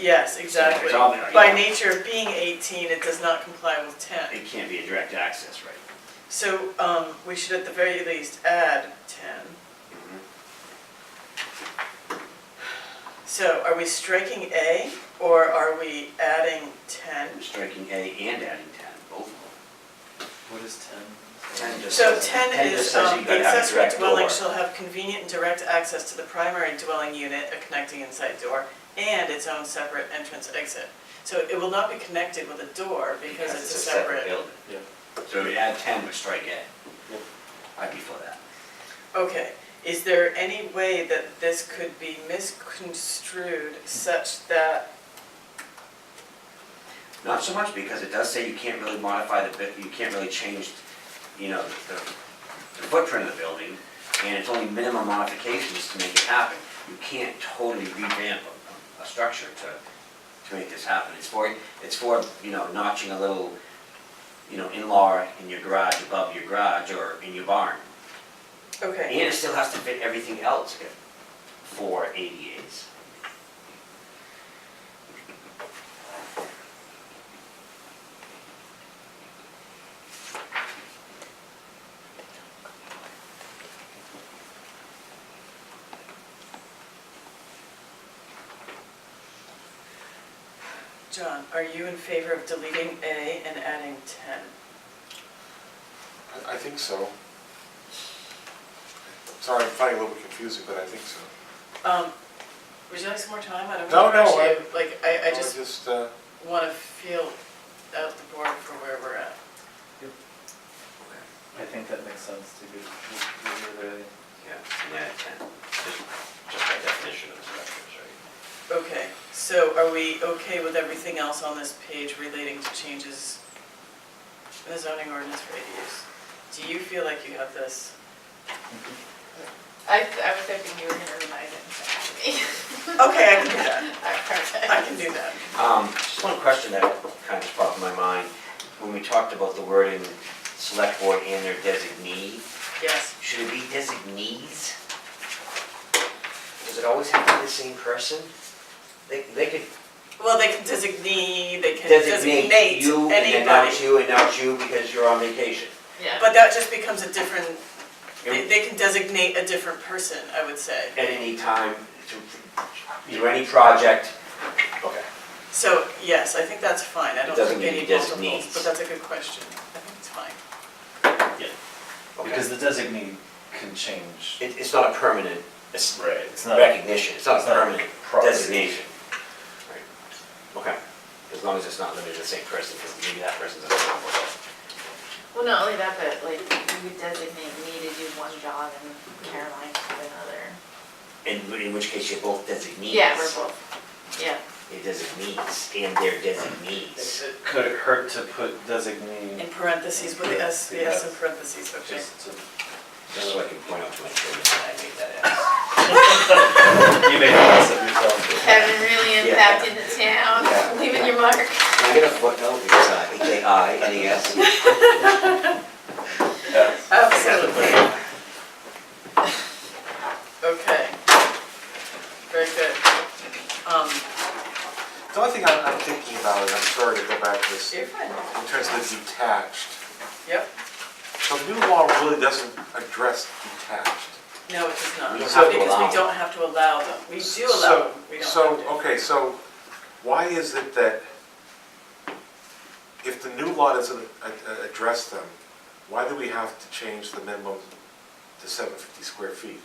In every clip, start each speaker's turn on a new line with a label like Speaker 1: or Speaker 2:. Speaker 1: Yes, exactly.
Speaker 2: It's all there,
Speaker 1: By
Speaker 2: yeah.
Speaker 1: nature of being 18, it does not comply with 10.
Speaker 2: It can't be a direct access, right?
Speaker 1: So um, we should at the very least add 10. So are we striking A or are we adding 10?
Speaker 2: I'm striking A and adding ten, both of them.
Speaker 3: What is ten?
Speaker 2: Ten just
Speaker 1: So
Speaker 2: says-
Speaker 1: 10
Speaker 2: just
Speaker 1: is,
Speaker 2: says
Speaker 1: um,
Speaker 2: you
Speaker 1: the
Speaker 2: gotta have a
Speaker 1: accessory
Speaker 2: direct
Speaker 1: dwelling
Speaker 2: door.
Speaker 1: shall have convenient and direct access to the primary dwelling unit, a connecting inside door, and its own separate entrance exit. So it will not be connected with a door because it's a separate.
Speaker 2: building.
Speaker 3: Yeah.
Speaker 2: So we add ten, we strike
Speaker 3: Yeah.
Speaker 2: A. I'd be for that.
Speaker 1: Okay, is there any way that this could be misconstrued such that,
Speaker 2: Not so much because it does say you can't really modify the, bu- you can't really change, you know, the the footprint of the building, and it's only minimum modifications to make it happen. You can't totally revamp a, a structure to, to make this happen. It's for, it's for, you know, notching a little, you know, in-law in your garage, above your garage, or in your barn.
Speaker 1: okay.
Speaker 2: And it still has to fit everything else for ADAs.
Speaker 1: John, are you in favor of deleting A and adding 10?
Speaker 4: I, I think so. Sorry, I'm finding it a little bit confusing, but I think so.
Speaker 1: Um, Would you like some more time? I don't
Speaker 4: No,
Speaker 1: want to
Speaker 4: no,
Speaker 1: rush
Speaker 4: I-
Speaker 1: you. Like, I, I just
Speaker 4: Just, uh,
Speaker 1: want to feel out the board for where we're at.
Speaker 3: I think that makes sense to do, to do the,
Speaker 2: Yeah, and add ten, just, just by definition of the structures, right?
Speaker 1: Okay, so are we okay with everything else on this page relating to changes in the zoning ordinance for ADUs? Do you feel like you have this?
Speaker 5: I, I was hoping you were gonna remind him to me.
Speaker 1: Okay, I can do that. I
Speaker 5: I
Speaker 1: can do that.
Speaker 2: Um, Just one question that kind of popped in my mind, when we talked about the wording, select board and their designee,
Speaker 1: Yes.
Speaker 2: should it be designees? Does it always have to be the same person? They, they could
Speaker 1: Well, they can designate, they can designate
Speaker 2: designate you and then
Speaker 1: anybody,
Speaker 2: not you and not you because you're on vacation.
Speaker 5: Yeah,
Speaker 1: but that just becomes a different, they,
Speaker 2: And
Speaker 1: they can designate a different person, I would say.
Speaker 2: At any time, to, to any project, okay.
Speaker 1: So, yes, I think that's fine, I
Speaker 2: It
Speaker 1: don't
Speaker 2: doesn't
Speaker 1: think any
Speaker 2: need to designate.
Speaker 1: multiples, but that's a good question, I think it's fine.
Speaker 2: okay.
Speaker 3: because the designee can change.
Speaker 2: It, it's not a permanent it's
Speaker 3: It's not-
Speaker 2: recognition, it's not a
Speaker 3: it's not a
Speaker 2: permanent
Speaker 3: property.
Speaker 2: designation. Right. Okay, as long as it's not limited to the same person, because maybe that person's on the board.
Speaker 5: well, not only that, but like, you would designate me to do one job and Caroline to do another.
Speaker 2: In, in which case you're both designees.
Speaker 5: Yeah, we're both, yeah,
Speaker 2: You're designees, and they're designees.
Speaker 3: Could it hurt to put designee
Speaker 1: In parentheses, with the S, the S in parentheses, okay.
Speaker 3: just to?
Speaker 2: Just so I can point out to my children that I made that
Speaker 3: You made a mess of yourself.
Speaker 5: Kevin really
Speaker 2: Yeah.
Speaker 5: impacted the town,
Speaker 2: Yeah.
Speaker 5: leaving your mark.
Speaker 2: ass. Can I get a footnote, because I think they I, N E S.
Speaker 3: Yeah.
Speaker 1: Oh, Absolutely. Okay. Very good. Um,
Speaker 4: the only thing I'm, I'm thinking about, and I'm sorry to go back to this,
Speaker 1: you're fine.
Speaker 4: in terms of the detached.
Speaker 1: Yep.
Speaker 4: So the new law really doesn't address detached.
Speaker 1: No, it does not,
Speaker 2: We don't have
Speaker 1: because we don't have to
Speaker 2: to allow them.
Speaker 1: allow them. We do allow
Speaker 4: So-
Speaker 1: them, we don't have to.
Speaker 4: So, okay, so why is it that if the new law doesn't a- a- address them, why do we have to change the minimum to 750 square feet?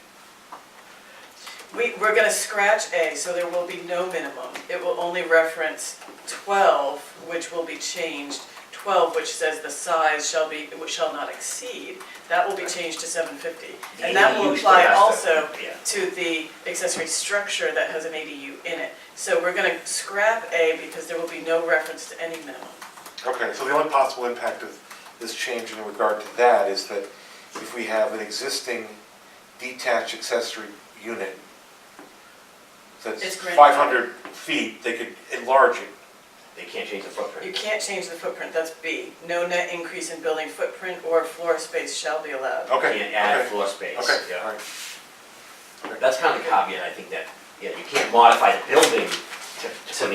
Speaker 1: We, we're gonna scratch A, so there will be no minimum. It will only reference twelve, which will be changed, twelve, which says the size shall be, which shall not exceed. That will be changed to seven fifty. And that will
Speaker 2: ADUs,
Speaker 1: apply
Speaker 2: that's the-
Speaker 1: also
Speaker 2: yeah.
Speaker 1: to the accessory structure that has an ADU in it. So we're gonna scrap A because there will be no reference to any minimum.
Speaker 4: Okay, so the only possible impact of this change in regard to that is that if we have an existing detached accessory unit
Speaker 1: It's
Speaker 4: that's
Speaker 1: grandfathered.
Speaker 4: 500 feet, they could enlarge it.
Speaker 2: They can't change the
Speaker 1: You
Speaker 2: footprint.
Speaker 1: can't change the footprint, that's B. No net increase in building footprint or floor space shall be allowed.
Speaker 4: Okay.
Speaker 2: Can't add
Speaker 4: okay,
Speaker 2: floor space.
Speaker 4: Okay,
Speaker 2: yeah.
Speaker 4: all right.
Speaker 2: That's kind of the caveat, I think, that, yeah, you can't modify the building to to